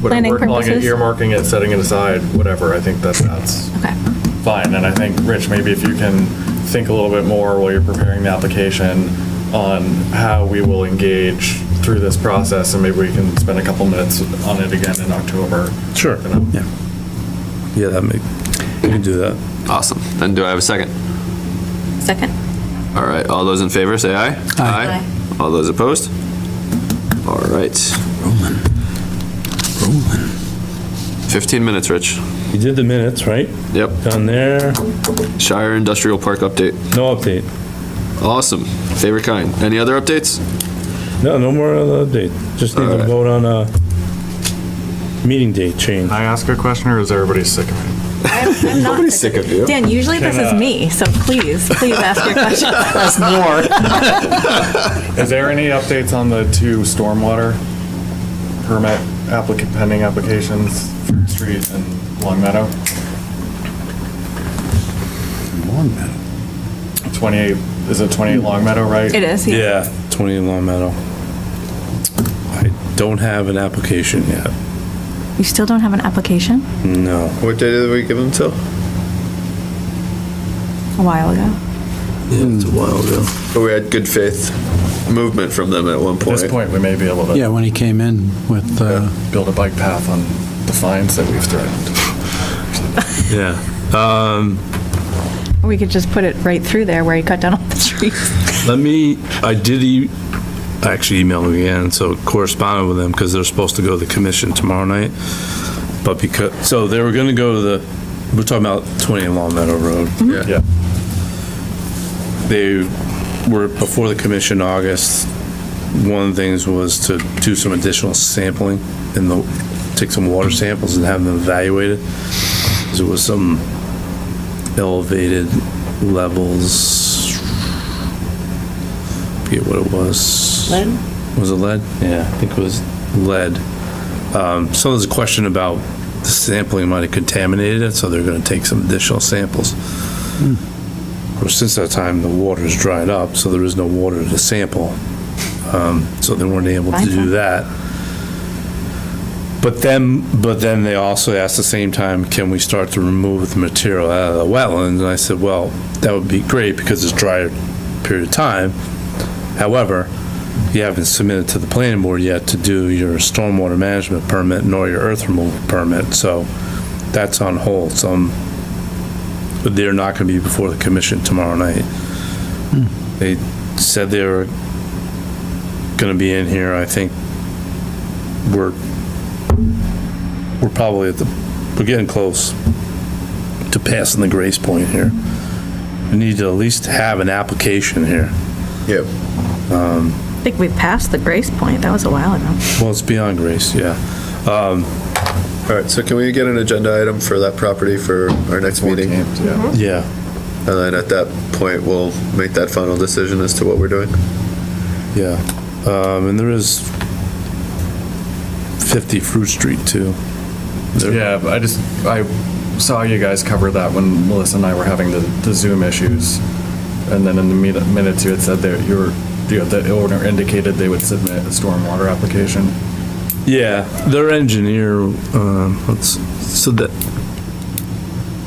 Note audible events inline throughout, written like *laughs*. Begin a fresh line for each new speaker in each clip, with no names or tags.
Planning
we're calling it
purposes?
Earmarking it, setting it aside, whatever, I think that that's
Okay.
fine. And I think, Rich, maybe if you can think a little bit more while you're preparing the application on how we will engage through this process, and maybe we can spend a couple minutes on it again in October.
Sure.
You know?
Yeah. Yeah, that make, you can do that.
Awesome. Then do I have a second?
*laughs* Second.
All right, all those in favor, say aye.
Aye.
All those opposed? All right.
Rolling, rolling.
15 minutes, Rich.
You did the minutes, right?
Yep.
Down there,
Shire Industrial Park update.
no update.
Awesome. Favorite kind. Any other updates?
No, no more other update. Just need to
Alright.
vote on a meeting date change.
Can I ask a question, or is everybody sick of me?
I'm I'm not
Nobody's sick of you.
*laughs* Dan, usually this is me, so please, please ask your question. *laughs*
Is there any updates on the two stormwater permit applicant, pending applications, Fruit Street and Long Meadow?
Long metal.
28, is it 28 Long Meadow, right?
It is, yeah.
Yeah, 20 Long Meadow. I don't have an application yet.
You still don't have an application?
No.
What day did we give them till?
A while ago.
Yeah, it's a while ago.
We had good faith movement from them at one
At this point, we may be able to
Yeah, when he came in with, uh,
build a bike path on the fines that we've threatened.
Yeah.
Or we could just put it right through there where you cut down all the *laughs* trees.
Let me, I did e- actually email them again, so corresponded with them because they're supposed to go to the commission tomorrow night. But because, so they were going to go to the, we're talking about 20 Long Meadow Road.
Yeah.
They were before the commission in August. One of the things was to do some additional sampling and the, take some water samples and have them evaluated. 'Cause There was some elevated levels. Forget what it was.
Lead?
Was it lead? Yeah, I think it was lead. Um, So there's a question about the sampling might have contaminated it, so they're gonna take some additional samples. Of course, since that time, the water's dried up, so there is no water to sample. Um, So they weren't able to do
Fine.
that. But then, but then they also asked the same time, can we start to remove the material out of the wetlands? And I said, well, that would be great because it's drier period of time. However, you haven't submitted to the planning board yet to do your stormwater management permit nor your earth removal permit, so that's on hold. So I'm- but they're not going to be before the commission tomorrow night. They said they were going to be in here. I think we're, we're probably at the, we're getting close to passing the grace point here. We need to at least have an application here.
Yep.
I think we passed the grace point. That was a while ago.
Well, it's beyond grace, yeah. Um,
All right, so can we get an agenda item for that property for our next meeting? And
Yeah.
Yeah.
then at that point, we'll make that final decision as to what we're doing.
Yeah, um, and there is 50 Fruit Street too. There-
Yeah, but I just, I saw you guys cover that when Melissa and I were having the the Zoom issues. And then in the meet- minutes, you had said that you were, you know, the owner indicated they would submit a stormwater application.
Yeah, their engineer, um, let's, so that,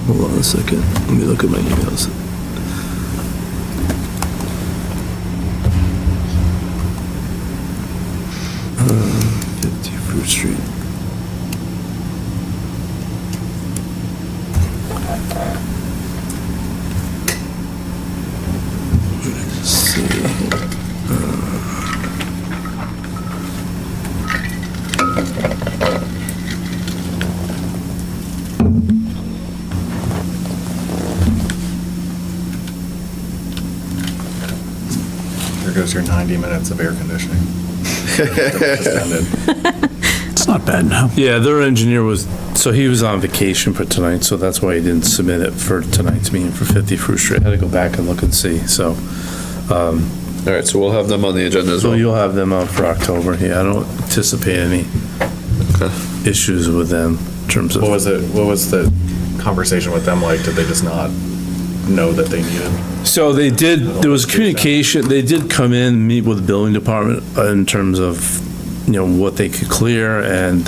hold on a second, let me look at my emails. Um, 50 Fruit Street. Let's see.
There goes your 90 minutes of air conditioning.
it's not bad now.
Yeah, their engineer was, so he was on vacation for tonight, so that's why he didn't submit it for tonight's meeting for 50 Fruit Street. I had to go back and look and see, so.
All right, so we'll have them on the agenda as
So
well.
you'll have them out for October. Yeah, I don't anticipate any
Okay.
issues with them in terms
*laughs*
of.
What was it, what was the conversation with them like? Did they just not know that they needed?
So they did, there was communication, they did come in, meet with the building department in terms of, you know, what they could clear and